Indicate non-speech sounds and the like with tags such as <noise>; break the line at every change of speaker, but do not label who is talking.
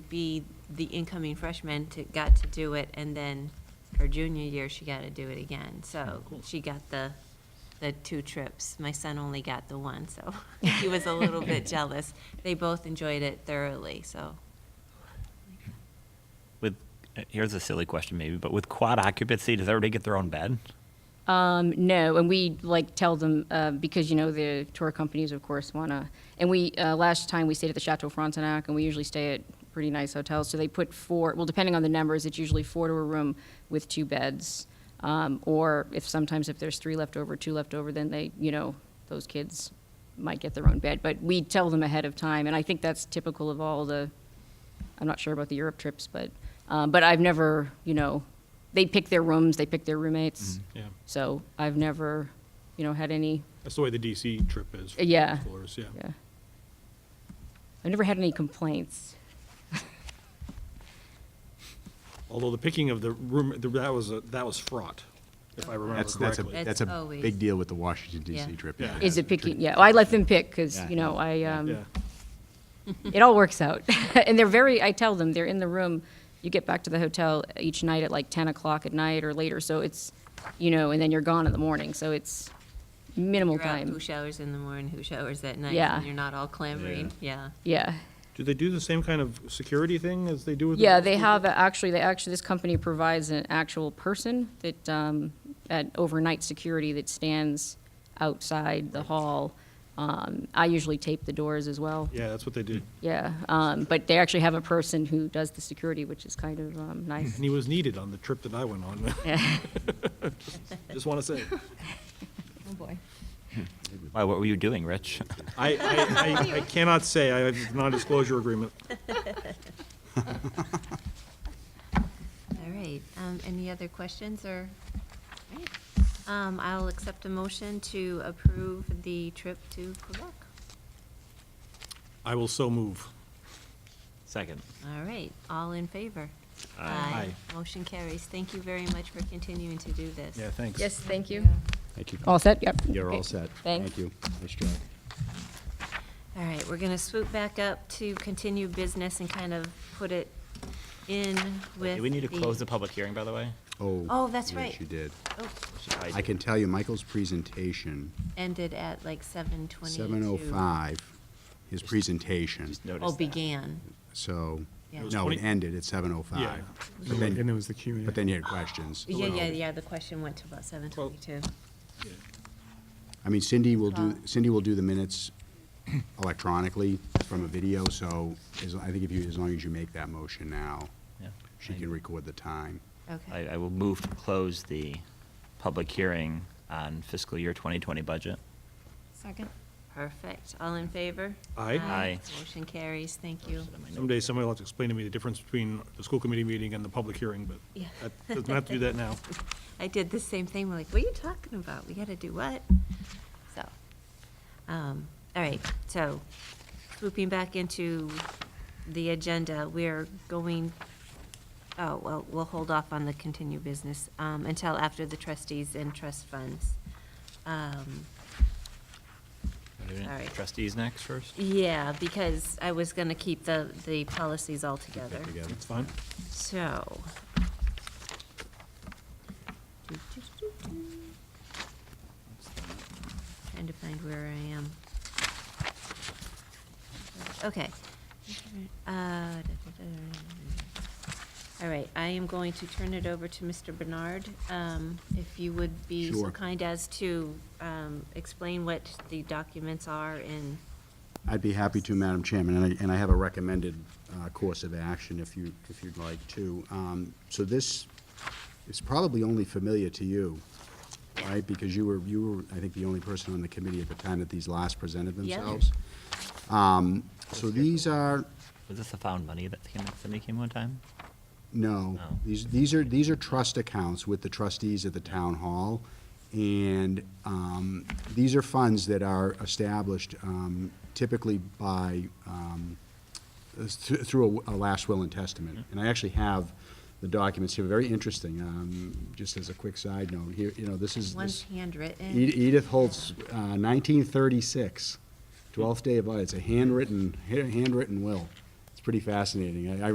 be the incoming freshman to, got to do it, and then her junior year, she got to do it again.
Oh,
So she got the, the two trips. My son only got the one, so <laughs> he was a little
<laughs>
bit jealous. They both enjoyed it thoroughly, so.
With uh, here's a silly question maybe, but with quad occupancy, does everybody get their own bed?
Um, no, and we like tell them uh, because you know the tour companies, of course, want to. And we uh, last time we stayed at the Chateau Frontenac, and we usually stay at pretty nice hotels. So they put four. Well, depending on the numbers, it's usually four to a room with two beds, um, or if sometimes if there's three left over, two left over, then they you know those kids might get their own bed. But we tell them ahead of time, and I think that's typical of all the I'm not sure about the Europe trips, but um, but I've never, you know, they pick their rooms, they pick their roommates.
Yeah.
So I've never, you know, had any.
That's the way the DC trip is. for
Yeah.
Flores, yeah.
Yeah. I've never had any complaints.
Although the picking of the room, the- that was, a- that was fraught, if I remember
That's, that's a,
correctly.
that's a
always-
big deal with the Washington DC
Yeah.
trip.
Yeah.
Is it picking? Yeah, well, I let them pick because
Yeah,
you know
yeah,
I
yeah.
um,
Yeah.
it all works out, <laughs> and they're very. I tell them they're in the room. You get back to the hotel each night at like 10 o'clock at night or later, so it's, you know, and then you're gone in the morning, so it's minimal
figure out
time.
Who showers in the morning, who showers at night.
Yeah.
And you're not all clamoring, yeah.
Yeah.
Do they do the same kind of security thing as they do with? the
Yeah,
middle
they
school?
have, a- actually, they actually, this company provides an actual person that, um, at overnight security that stands outside the hall. Um, I usually tape the doors as well.
Yeah, that's what they did.
Yeah, um, but they actually have a person who does the security, which is kind of, um,
<laughs>
nice.
And he was needed on the trip that I went on.
Yeah.
Just want to say.
Oh, boy.
Why, what were you doing, Rich?
<laughs> I,
<laughs>
I, I- I cannot say. I have a non-disclosure agreement.
All right, um, any other questions or? all right. Um, I'll accept a motion to approve the trip to Quebec.
I will so move.
Second.
All right, all in favor?
Aye.
Motion carries. Thank you very much for continuing to do this.
Yeah, thanks.
Yes, thank you.
Thank you.
All set, yep.
You're all
Okay.
set.
Thanks.
Thank you. Nice job.
All right, we're going to swoop back up to continue business and kind of put it in with.
Do we need to close the public hearing, by the way?
Oh.
Oh, that's
yes,
right.
you did.
Oh,
Should
I can tell you, Michael's presentation,
Ended at like seven twenty-two.
seven oh five, his presentation,
Just notice
Oh,
that.
began.
so,
Yeah. It was
no, it
20
ended at seven oh
Yeah.
five. But then,
there was the Q.
but then you had questions.
Yeah, yeah,
So,
yeah, the question went to about seven twenty-two.
I mean, Cindy will do,
Twelve.
Cindy will do the minutes electronically from a video, so as, I think if you, as long as you make that motion now,
Yeah.
she
I-
can record the time.
I,
Okay.
I will move to close the public hearing on fiscal year 2020 budget.
Second. Perfect. All in favor?
Aye.
Aye.
Motion carries. Thank you.
Someday somebody will have to explain to me the difference between the school committee meeting and the public hearing, but
<laughs> Yeah.
that doesn't have to Uh, do that now.
<laughs> I did the same thing. We're like, what are you talking about? We gotta do what? So, um, all right, so swooping back into the agenda, we're going, oh, well, we'll hold off on the continued business, um, until after the trustees and trust funds. Um, All right.
Trustees next first?
yeah, because I was gonna keep the, the policies all together.
Together.
It's fine.
So. Trying to find where I am. Okay. Uh, da, da, da. All right, I am going to turn it over to Mr. Bernard. Um, If you would be so
Sure.
kind as to um, explain what the documents are and,
I'd be happy to, Madam Chairman, and I, and I have a recommended uh, course of action if you, if you'd like to. Um, So this is probably only familiar to you, right? Because you were, you were, I think, the only person on the committee at the time that these last presented
Yeah.
themselves. Um, So these are,
Was this the found money that came, that somebody came one time?
no.
No.
These, these are, these are trust accounts with the trustees at the town hall. And um, these are funds that are established um, typically by, um, th- through a a last will and testament. And I actually have the documents here, very interesting. Um, Just as a quick side note, here, you know, this is.
one's
this-
handwritten.
Ed- Edith Holt's uh, 1936, 12th day of, it's a handwritten, handwritten will. It's pretty fascinating. I I